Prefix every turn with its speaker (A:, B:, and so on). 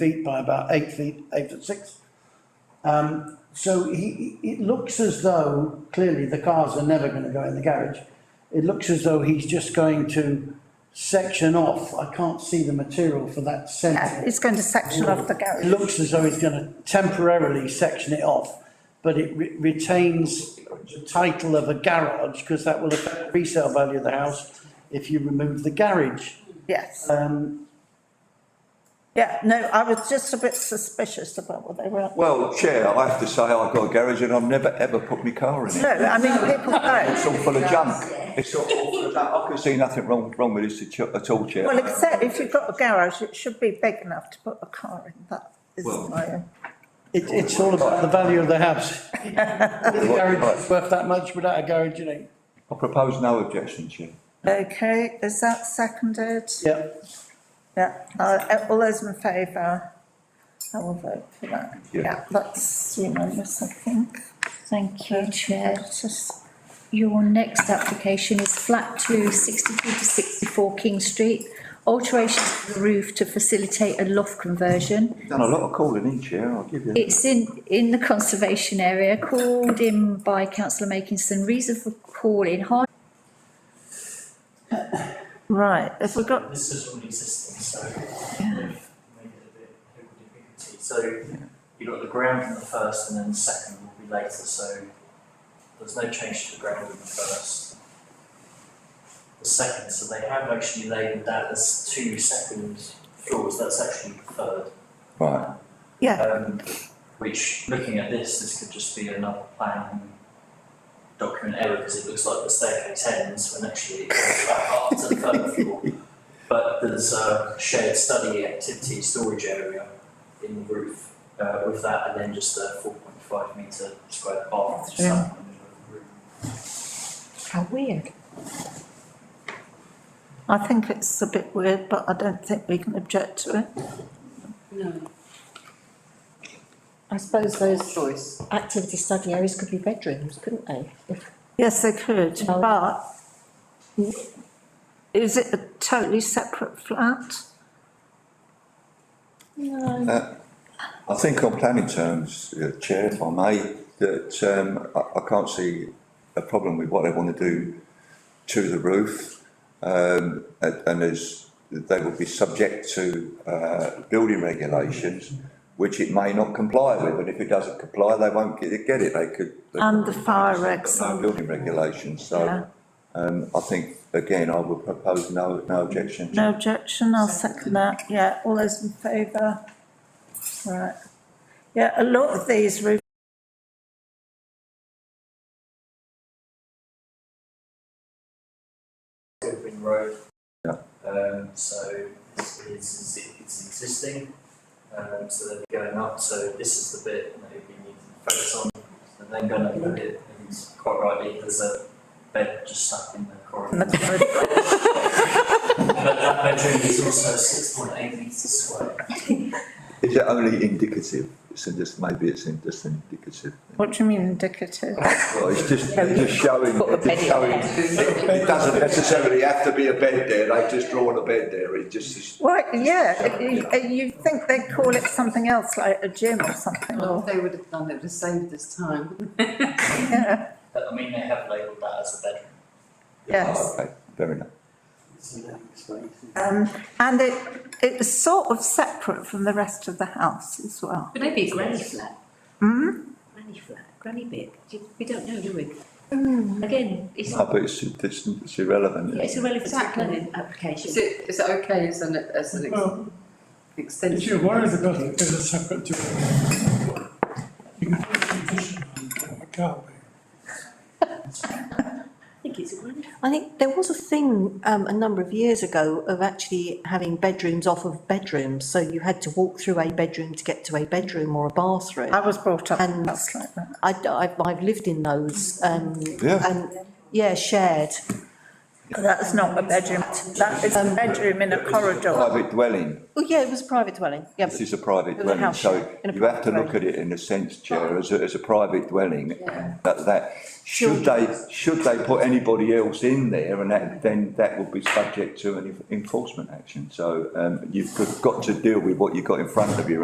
A: feet by about eight feet, eight foot six. Um, so he, he- it looks as though, clearly the cars are never gonna go in the garage. It looks as though he's just going to section off, I can't see the material for that
B: Yeah,
A: centre.
B: it's going to section off the
A: It
B: garage.
A: looks as though he's gonna temporarily section it off, but it re- retains the title of a garage, because that will affect the resale value of the house if you remove the garage.
B: Yes,
A: Um,
B: yeah, no, I was just a bit suspicious about what they were.
C: Well, Chair, I have to say, I've got a garage and I've never ever put my car in
B: No,
C: it.
B: I mean, people
C: It's
B: know.
C: all full of junk. It's all full of junk. I can see nothing wrong, wrong with this at- at all, Chair.
B: Well, except if you've got a garage, it should be big enough to put a car in, that is
C: Well-
B: my.
A: it, it's all about the value of the house. If the garage is worth that much without a garage, you know,
C: I propose no objection, Chair.
B: Okay, is that seconded?
A: yeah.
B: Yeah, uh, all those in favour, I will vote for that.
C: Yeah.
B: Yeah, that's unanimous, I think.
D: Thank you, Chair.
B: Just
D: Your next application is flat two, sixty-three to sixty-four King Street. Alterations to the roof to facilitate a loft conversion.
C: Done a lot of calling in, Chair, I'll give you. that.
D: It's in, in the conservation area, called in by councillor Makinson. Reason for call in, hard
B: Right, if we've got,
E: This is already existing, so. Made it a bit higgledy-piggledy. So you've got the ground in the first and then the second will be later, so there's no change to the ground in the first. The second, so they have actually labelled that as two second floors, that's actually the third.
C: Right,
B: yeah,
E: Um, which, looking at this, this could just be another plan document error because it looks like the staircase ends when actually it goes back up to the third floor. But there's a shared study activity storage area in the roof uh, with that and then just a four point five metre square bath just up in the middle of the room.
D: How weird.
B: I think it's a bit weird, but I don't think we can object to it.
F: I suppose those activity study areas could be bedrooms, couldn't they? If-
B: Yes, they could,
F: Oh.
B: but is it a totally separate flat?
C: Uh, I think on planning terms, uh, Chair, if I may, that, um, I, I can't see a problem with what they want to do to the roof. Um, and, and as they will be subject to, uh, building regulations, which it may not comply with, and if it doesn't comply, they won't get, get it, they could. they
B: And the
C: could-
B: fire
C: they've got
B: regs
C: no
B: and-
C: Building regulations,
B: Yeah.
C: so, um, I think, again, I would propose no, no objection.
B: No objection, I'll second that, yeah, all those in favour? Right, yeah, a lot of these roof
E: Goodwin Road.
C: Yeah.
E: Um, so this is, it's existing, um, so they're going up, so this is the bit that we need to focus on. And then going up a bit, and quite rightly, there's a bed just stuck in the
B: in the
E: corridor.
B: corridor.
E: But that bedroom is also six point eight metres square.
C: Is it only indicative? It's just, maybe it's in- just indicative.
B: What do you mean indicative?
C: Well, it's just, they're just showing,
F: Put the
C: they're just
F: penny
C: showing, it doesn't necessarily have to be a bed there, they've just drawn a bed there, it just is.
B: Well, yeah, you, you think they'd call it something else, like a gym or something,
G: Well, if
B: or,
G: they would have done it, would have saved us time.
B: yeah,
E: But I mean, they have labelled that as a bedroom.
B: yes.
C: Okay, fair enough.
B: Um, and it, it was sort of separate from the rest of the house as well.
H: Could they be a granny flat? Hmm? Granny flat, granny bit, Do- we don't know, do we? Again, it's,
C: No, but it's, it's it's irrelevant.
H: yeah, it's irrelevant to the
G: Exactly.
H: planning application.
G: Is it, is it okay as an, as an ex-
I: Well, if
G: extension?
I: you're worried about it being a separate to you can put a condition on it, can't we?
H: I think it's a granny.
F: I think there was a thing, um, a number of years ago of actually having bedrooms off of bedrooms. So you had to walk through a bedroom to get to a bedroom or a bathroom.
B: I was brought up in a
F: And-
B: house like that.
F: I, have I've lived in those, um,
C: Yeah.
F: and, yeah, shared.
B: That's not a bedroom, that is a bedroom in a corridor.
C: Private dwelling,
F: Oh, yeah, it was a private dwelling, yeah.
C: this is a private
F: It's a
C: dwelling,
F: house,
C: so
F: in a
C: you have to
F: private
C: look at it in a sense, Chair, as a, as a private dwelling.
G: Yeah.
C: That, that, should they, should they put anybody else in there and that, then that would be subject to an enforcement action. So, um, you've got to deal with what you've got in front of you